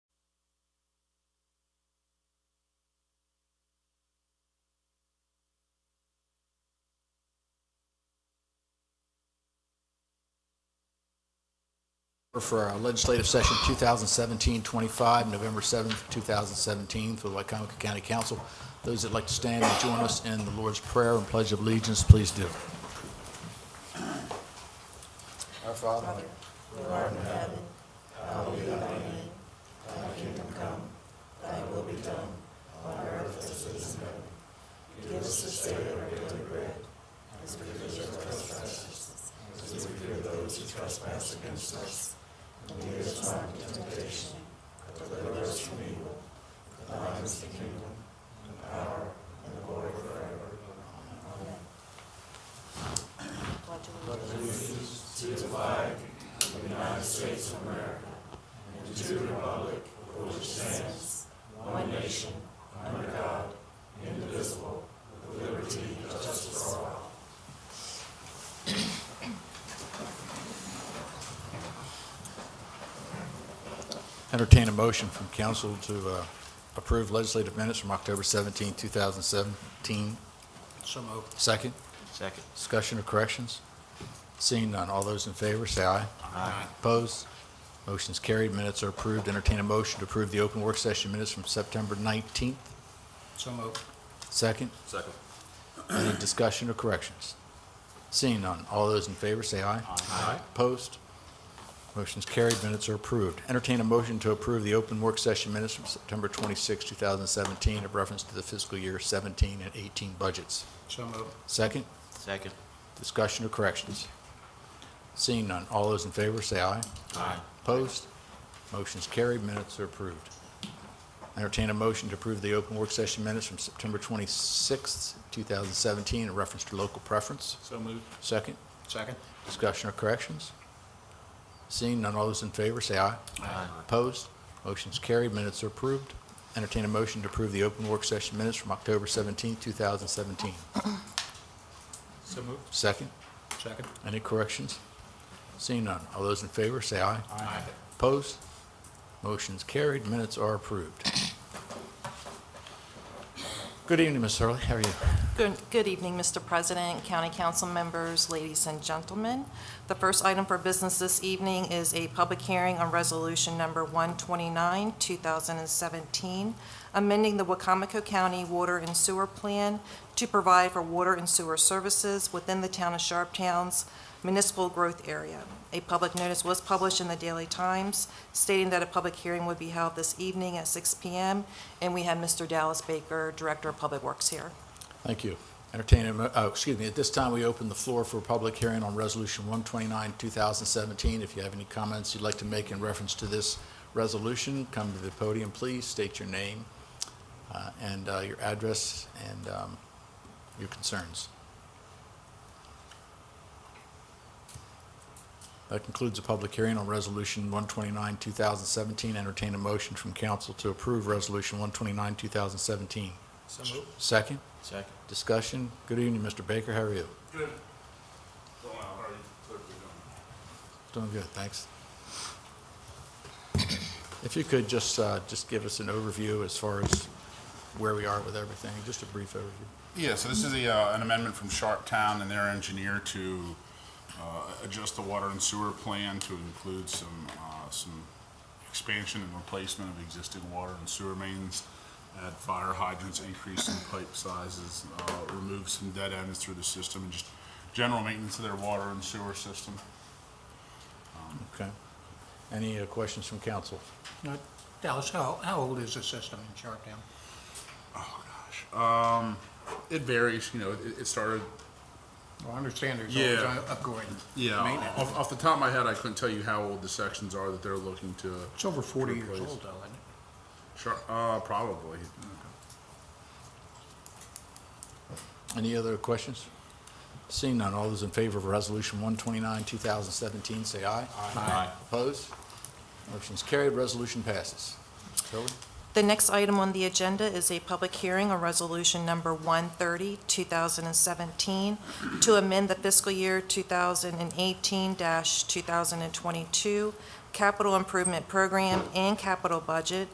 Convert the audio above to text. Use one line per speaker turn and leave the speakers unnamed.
for our legislative session 2017-25, November 7th, 2017, for the Wycomico County Council. Those that'd like to stand and join us in the Lord's Prayer and Pledge of Allegiance, please do. Our Father, entertain a motion from council to uh, approve legislative minutes from October 17, 2017.
So moved.
Second,
Second.
discussion or corrections? Seeing none, all those in favor, say aye.
Aye.
Opposed? Motion's carried, minutes are approved. Entertain a motion to approve the open work session minutes from September 19th.
So moved.
Second,
Second.
any discussion or corrections? Seeing none, all those in favor say aye.
Aye.
Opposed? Motion's carried, minutes are approved. Entertain a motion to approve the open work session minutes from September 26, 2017, of reference to the fiscal year 17 and 18 budgets.
So moved.
Second,
Second.
discussion or corrections? Seeing none, all those in favor say aye.
Aye.
Opposed? Motion's carried, minutes are approved. Entertain a motion to approve the open work session minutes from September 26th, 2017, in reference to local preference.
So moved.
Second,
Second.
discussion or corrections? Seeing none, all those in favor, say aye.
Aye.
Opposed? Motion's carried, minutes are approved. Entertain a motion to approve the open work session minutes from October 17th, 2017.
So moved.
Second,
Second.
any corrections? Seeing none, all those in favor, say aye.
Aye.
Opposed? Motion's carried, minutes are approved. Good evening, Ms. Hurley, how are you?
Good good evening, Mr. President, county council members, ladies and gentlemen. The first item for business this evening is a public hearing on Resolution Number 129, 2017, amending the Wacomico County Water and Sewer Plan to provide for water and sewer services within the town of Sharptown's municipal growth area. A public notice was published in the Daily Times stating that a public hearing would be held this evening at 6 PM, and we have Mr. Dallas Baker, Director of Public Works here.
Thank you. Entertain, a mo- oh, excuse me, at this time, we open the floor for a public hearing on Resolution 129, 2017. If you have any comments you'd like to make in reference to this resolution, come to the podium, please, state your name uh, and uh, your address and um, your concerns. That concludes the public hearing on Resolution 129, 2017. Entertain a motion from council to approve Resolution 129, 2017.
So moved.
Second?
Second.
Discussion? Good evening, Mr. Baker, how are you?
Good. Going out, how are you? What are we doing?
Doing good, thanks. If you could just, uh, just give us an overview as far as where we are with everything, just a brief overview.
Yeah, so this is a, uh, an amendment from Sharp Town and their engineer to, uh, adjust the water and sewer plan to include some, uh, some expansion and replacement of existing water and sewer mains, add fire hydrants, increase in pipe sizes, uh, remove some dead ends through the system, and just general maintenance of their water and sewer system.
Okay. Any uh, questions from council?
Now, Dallas, how, how old is the system in Sharptown?
Oh, gosh. Um, it varies, you know, it, it started
Well, I understand there's
Yeah.
always upgrading.
Yeah,
Maintenance.
off, off the top of my head, I couldn't tell you how old the sections are that they're looking to.
It's over 40 years
replace.
old, though, isn't it?
Sure, uh, probably.
Any other questions? Seeing none, all those in favor of Resolution 129, 2017, say aye.
Aye.
Opposed? Motion's carried, resolution passes. Ms. Hurley?
The next item on the agenda is a public hearing on Resolution Number 130, 2017, to amend the fiscal year 2018-2022 capital improvement program and capital budget